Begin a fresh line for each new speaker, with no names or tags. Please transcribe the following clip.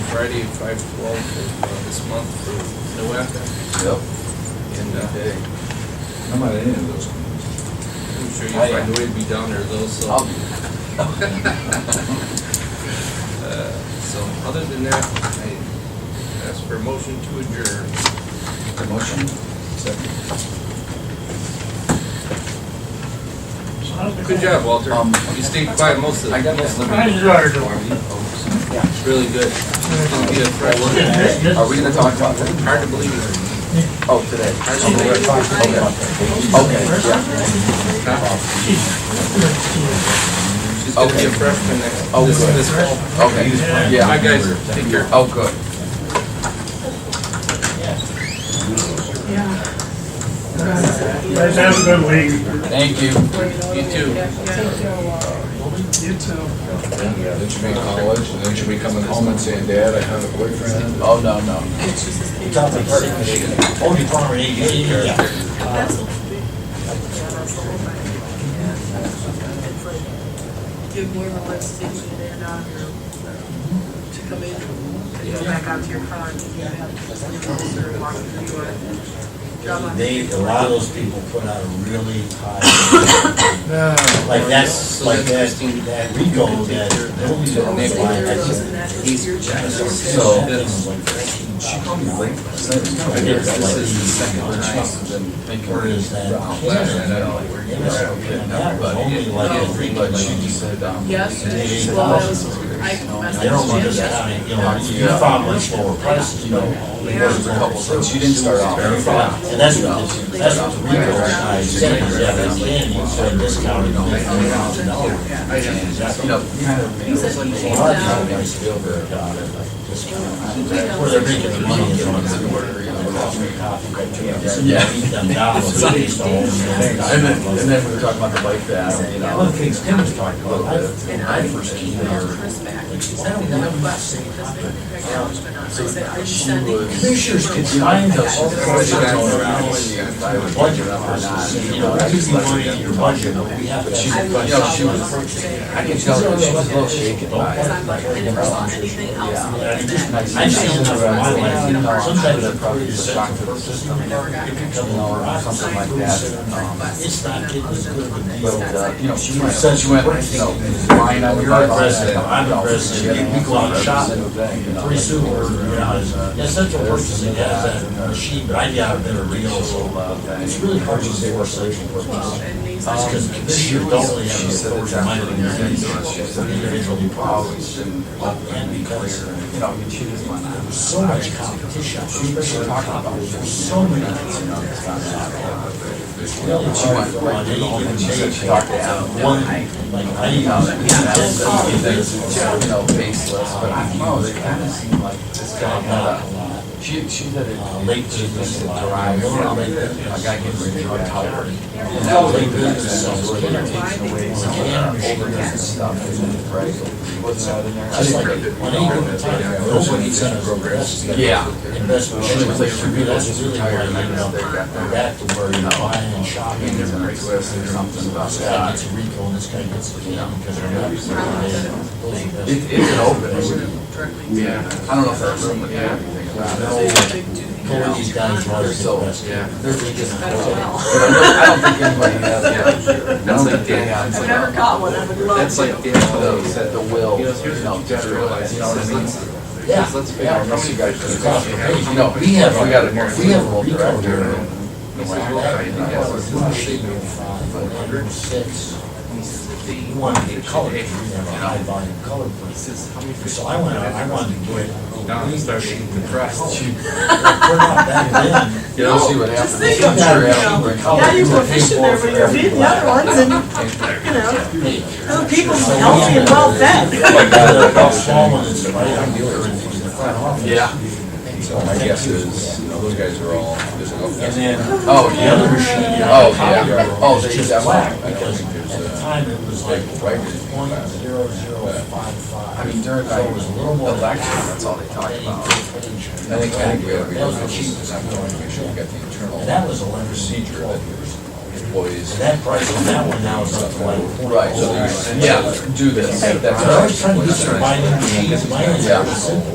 Friday at five twelve of uh, this month for NOAC.
Yep.
And uh,
I'm not in any of those committees.
I'm sure you'll
I am.
find a way to be down there though, so.
I'll be.
Uh, So, other than that, I ask for a motion to adjourn.
Motion? Second.
Good job, Walter.
Um,
You stayed quiet most of
I
it.
got this
Right,
limited.
you are doing.
Are
Really good. It'll be a fresh one.
we gonna talk about that?
Hard to believe it.
Oh, today.
Hard to believe it.
Okay, yeah.
She's gonna be a
Okay.
freshman next,
Oh,
this,
good.
this fall.
Okay,
Bye,
yeah.
guys. Take care.
Oh, good.
Guys, have a good week.
Thank you.
You too.
You too.
Yeah, then she made college, and then she be coming home and saying, Dad, I have a boyfriend.
Oh, no, no.
give more of a lift station and, uh, to come in, and go back out to your car, and you have to, or walk through your Drop off.
They, a lot of those people put out a really high, like that's,
So
like that,
that's Christine.
that Rico, that, that we don't
Take
know why,
care of
that's
those
a-
and that's
He's
your check.
So-
That's- This is the second time.
Where is that?
Last night, I don't know where you
Yeah, that's okay. That was only like a three,
But
but
she
she
just said, um.
Yes,
They-
well, I was, I
They don't
messaged him yesterday.
understand, you know, you found much lower prices, you know.
There's a couple things. She didn't start off. very far.
And that's what, this- that's what the Rico guy said, is that it's been, you said discounted, only three thousand dollars.
You know, you kind of-
He said he
A
came
lot of people
down.
don't feel very about it, like, just, where they're making their money is on the order, you know, coffee, coffee, right, two dollars.
Yeah.
Eat them dollars, at least all of them.
And then, and then we were talking about the bike path, you know.
One of the things Tim was talking about, I-
And I emailed Chris back, and she sent me the request, and Chris didn't acknowledge or not. I said, are you sending?
Commissioners could
Sure.
find those.
Budget
Budget numbers, and say, you know, that's just money in your budget, but we have to.
I will
you know, she was-
follow up today.
I can tell her she was a little shaken by
Because
it.
I'm like, I never saw anything else like
I just,
that.
I just don't know my life, sometimes I probably
The
just set
shock
the
to the
first
system,
system,
you
and
know,
never got it
you know, or something like that. Um,
It's not getting as good to be.
But, uh, you know, she went,
Said
she went, you know, flying out of the
You're
bike.
the president, I'm the president, we go out shopping,
you know.
pretty soon we're, you know, it's, uh, yeah, central purchasing has that machine, but I got a better deal, so, uh, it's really hard to say where central
Well,
purchasing.
and these.
Because this year don't really have the authority to mind the individual
Always
policies.
been
And because
you know, you choose one.
there's so much competition, especially talking about, there's so many, you know, it's not that. Really, it's hard on any given day,
Talk to Adam.
one, like, I, you
You know, faceless, but I don't know, they kind of seem like this guy
not
had
a lot.
a, she, she said it.
Uh, late
She
business
missed
a
it
lot.
derived from,
Late
a guy getting rid of drug tired. And
Tell
that late
late business
business is where they're taking away some of
Yeah.
their overdose and stuff, isn't it, right? What's that in there?
Just like, on any given time, nobody says progress.
Yeah.
Investment,
She was like,
that's
she
really, that's
realized
really why,
retired, and
you
then
know,
they got
we're
their
back to where you're buying and shopping.
hands in
and
their wrists or something about
This guy
that.
gets a recall, and this guy gets a can, because they're not. Those are
It,
best-
it could open, isn't it?
Directly.
I don't know if that room would have anything about it.
So you have to do the-
Go where these guys are, they're
So,
best.
yeah, they're just,
That's well.
I don't- I don't think anybody has, yeah.
That's like
Dan.
I've never caught one, I would love
That's
to.
like Dan Close.
The, the will,
You
you
know, here's
know,
what you gotta realize,
you know what I mean?
Yeah.
let's figure
Yeah,
out
I
how
guess
many
you guys
guys.
could-
Across the page,
You know, we have, we got a, we have a
Recall
director.
here.
He says, well, I think that's what's in the signal.
Six.
He says, if they-
You want to get
they-
color,
they-
you have a high volume color
He
print.
says, how many fish?
So I went out, I wanted to get. Oh,
Now he's starting to depress.
We're not back then.
You know, see what happens.
Just think of
Sure,
that, you know,
absolutely.
now you're proficient there when you're feeding the other ones and, you know, other people are healthy and well fed.
Yeah.
My guess is, you know, those guys are all, there's a lot
And then
Oh,
the
yeah.
other machine.
Oh, yeah. Oh,
It's
they
just
definitely-
black,
I don't uh,
because
think there's
at the
a-
time it was like
right
point zero zero five five.
I mean, during
So it was a little more.
the lecture, that's all they talk about.
I think, I think we have, we
That was
have,
the cheapest.
I'm going to make sure we got the
And
internal
that was eleven
procedure
procedure.
that there's employees.
And that price on that one now is up to like point.
Right, so, yeah, do this, that's.
I was trying to get some binding machines, mine is
Yeah.
simple.